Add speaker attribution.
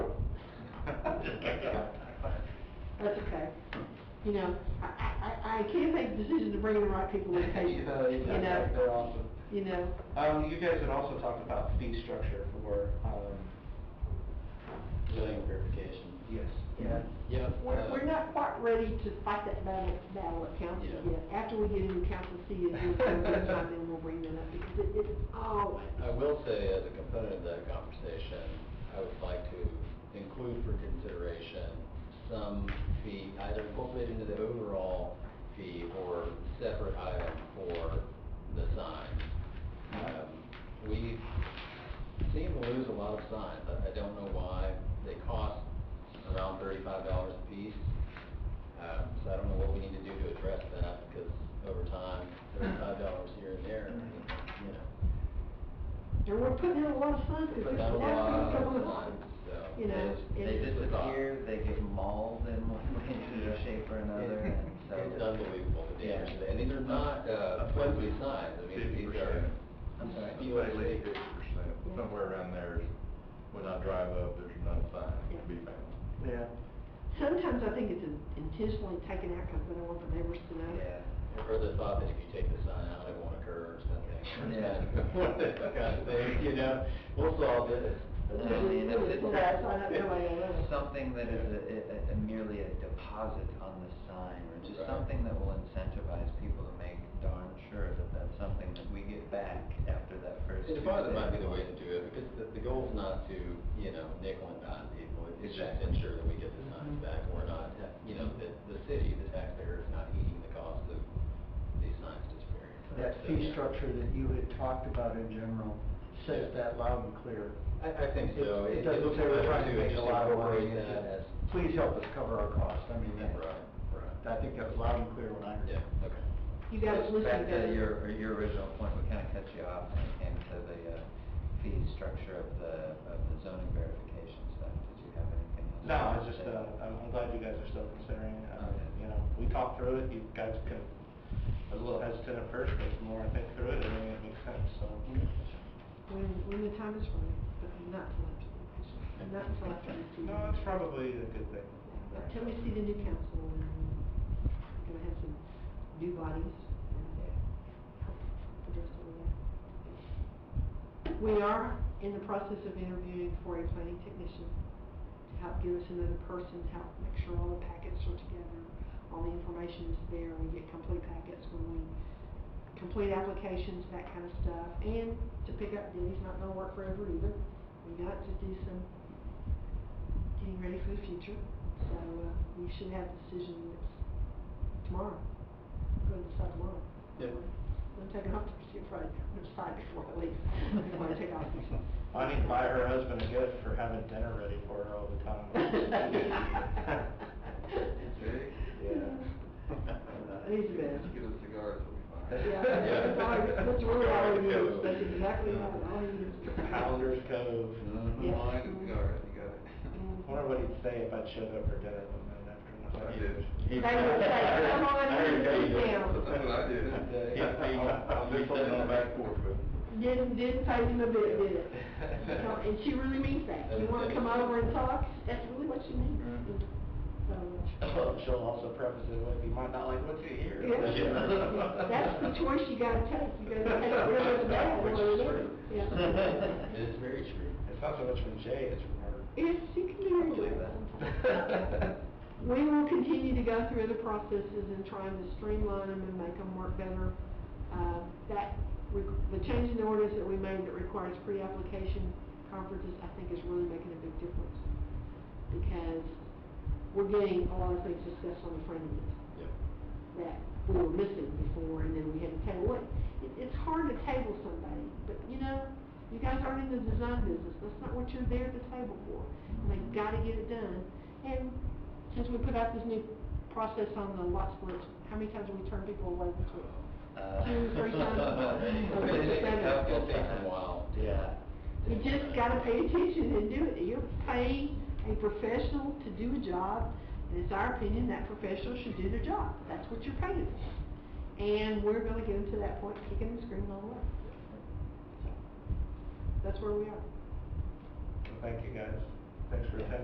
Speaker 1: That's okay. You know, I, I, I- I can't make decisions to bring the right people in.
Speaker 2: You
Speaker 3: uh,
Speaker 2: know,
Speaker 1: You
Speaker 2: yeah,
Speaker 1: know.
Speaker 2: they're awesome.
Speaker 1: You know,
Speaker 2: Um, you guys had also talked about fee structure for, um,
Speaker 4: zoning verification. Uh,
Speaker 2: yes.
Speaker 1: Yeah.
Speaker 4: Yep.
Speaker 1: we're, we're not quite ready to fight that battle, battle at council
Speaker 4: Yeah.
Speaker 1: yet. After we get into council seated, we'll, we'll try, then we'll bring that up because it, it's always,
Speaker 4: I will say, as a component of that conversation, I would like to include for consideration some fee, either incorporated into the overall fee or separate item for the signs. Um, We seem to lose a lot of signs. I I don't know why. They cost around thirty-five dollars a piece. Um, So I don't know what we need to do to address that, because over time, thirty-five dollars here and there, you know.
Speaker 1: and we're putting in a lot of funds. because
Speaker 4: But that
Speaker 1: that's
Speaker 4: was a
Speaker 1: what's
Speaker 4: lot
Speaker 1: going
Speaker 4: of
Speaker 1: on.
Speaker 4: fun, so.
Speaker 1: You know,
Speaker 5: They
Speaker 1: it's-
Speaker 4: just
Speaker 5: disappear, they get mauled in one way,
Speaker 4: Yeah.
Speaker 5: shape, or another, and so.
Speaker 4: It's unbelievable, the damage, that- and these are not, uh, flimsy signs, I mean, these are.
Speaker 5: I'm sorry.
Speaker 4: You know, they-
Speaker 6: percent, somewhere around there, is when I drive up, there's another sign to be found.
Speaker 2: Yeah.
Speaker 1: Sometimes I think it's intentionally taken out because they don't want the neighbors to know.
Speaker 5: Yeah.
Speaker 4: Or the thought that if you take the sign out, it won't occur or something.
Speaker 5: Yeah.
Speaker 4: What the kind of thing, you know, we'll solve this.
Speaker 5: I mean, if it's
Speaker 1: Well, that's why I don't know why they love it.
Speaker 5: not something that is a- a- a- merely a deposit on the sign, or just
Speaker 4: Right.
Speaker 5: something that will incentivize people to make darn sure that that's something that we get back after that first.
Speaker 4: The deposit might be the
Speaker 5: visit.
Speaker 4: way to do it, because the, the goal's not to, you know, nickel and dime people, it's just to ensure that we get the signs back, and we're not, you know, the, the city, the taxpayer is not eating the cost of these signs disappearing.
Speaker 3: that fee structure that you had talked about in general says that loud and clear.
Speaker 4: I, I think
Speaker 3: It
Speaker 4: so.
Speaker 3: it doesn't say we're trying to make a lot of money. It
Speaker 4: Incorporate that as.
Speaker 3: says, Please help us cover our costs. I mean, that-
Speaker 4: Right, right.
Speaker 3: I think that was loud and clear when I heard it.
Speaker 4: Yeah, okay.
Speaker 1: You guys
Speaker 5: Just
Speaker 1: listen
Speaker 5: Back
Speaker 1: to
Speaker 5: to your, your original point, we kind of cut you off when it came to the uh, fee structure of the, of the zoning verification stuff. Did you have anything else?
Speaker 2: No, it's just, uh, I'm I'm glad you guys are still considering, it. Uh, you know, we talked through it, you guys can, I was a little hesitant at first, but the more I think through it, I mean, it makes sense, so.
Speaker 4: Mm-hmm.
Speaker 1: when, when the time is right, but not till after, not till after we see.
Speaker 2: No, it's probably a good thing.
Speaker 1: Until we see the new council, and we're gonna have some new bodies. and address all that. We are in the process of interviewing for a planning technician to help give us another person, to help make sure all the packets are together, all the information is there, we get complete packets when we complete applications, that kind of stuff, and to pick up duties, not gonna work forever either. We got to do some getting ready for the future, so uh, we should have a decision that's tomorrow. Go and decide tomorrow.
Speaker 2: Yeah.
Speaker 1: I'm taking off Thursday, Friday, I'm gonna decide before I leave. I want to take off.
Speaker 2: I need to buy her husband a gift for having dinner ready for her all the time.
Speaker 1: He's the best.
Speaker 6: Get a cigar, it'll be fine.
Speaker 1: Yeah, that's always- that's really all he is, that's exactly
Speaker 2: Yeah.
Speaker 1: all he is.
Speaker 2: Pounders Cove.
Speaker 1: Yeah.
Speaker 6: Mine is cigar, you got it.
Speaker 2: I wonder what he'd say if I showed up for dinner one night after.
Speaker 6: I did.
Speaker 1: They would say, come on, sit
Speaker 6: That's
Speaker 1: down.
Speaker 6: what I did. I'll do something on the back porch, but.
Speaker 1: Didn't, didn't pay him a bit, did it? No, And she really means that. You wanna come over and talk, that's really what she means. So,
Speaker 2: She'll also preface it with, you might not like what's you hear.
Speaker 1: yeah, that's the choice you gotta take. You gotta take it real as bad, or
Speaker 2: Which is true.
Speaker 1: Yeah.
Speaker 4: It's very true.
Speaker 2: It's not so much from Jay, it's from her.
Speaker 1: If she can do it.
Speaker 5: Believe that.
Speaker 1: We will continue to go through the processes and trying to streamline them and make them work better. Uh, That, re- the change in the ordinance that we made that requires pre-application conferences, I think is really making a big difference. Because we're getting a lot of things discussed on the front end
Speaker 4: Yeah.
Speaker 1: that we were missing before, and then we had to table it. It- It's hard to table somebody, but you know, you guys aren't in the design business, that's not what you're there to table for. And They've got to get it done. And since we put out this new process on the lot splits, how many times have we turned people away between?
Speaker 5: Uh,
Speaker 1: Two, three times.
Speaker 5: It's gonna take a couple
Speaker 4: It'll take a
Speaker 5: times.
Speaker 4: while.
Speaker 5: Yeah.
Speaker 1: You just gotta pay attention and do it. You're paying a professional to do a job, and it's our opinion that professional should do their job. That's what you're paying for. And we're gonna get them to that point, kicking and screaming all the way. So, That's where we are.
Speaker 2: Thank you, guys. Thanks for attending.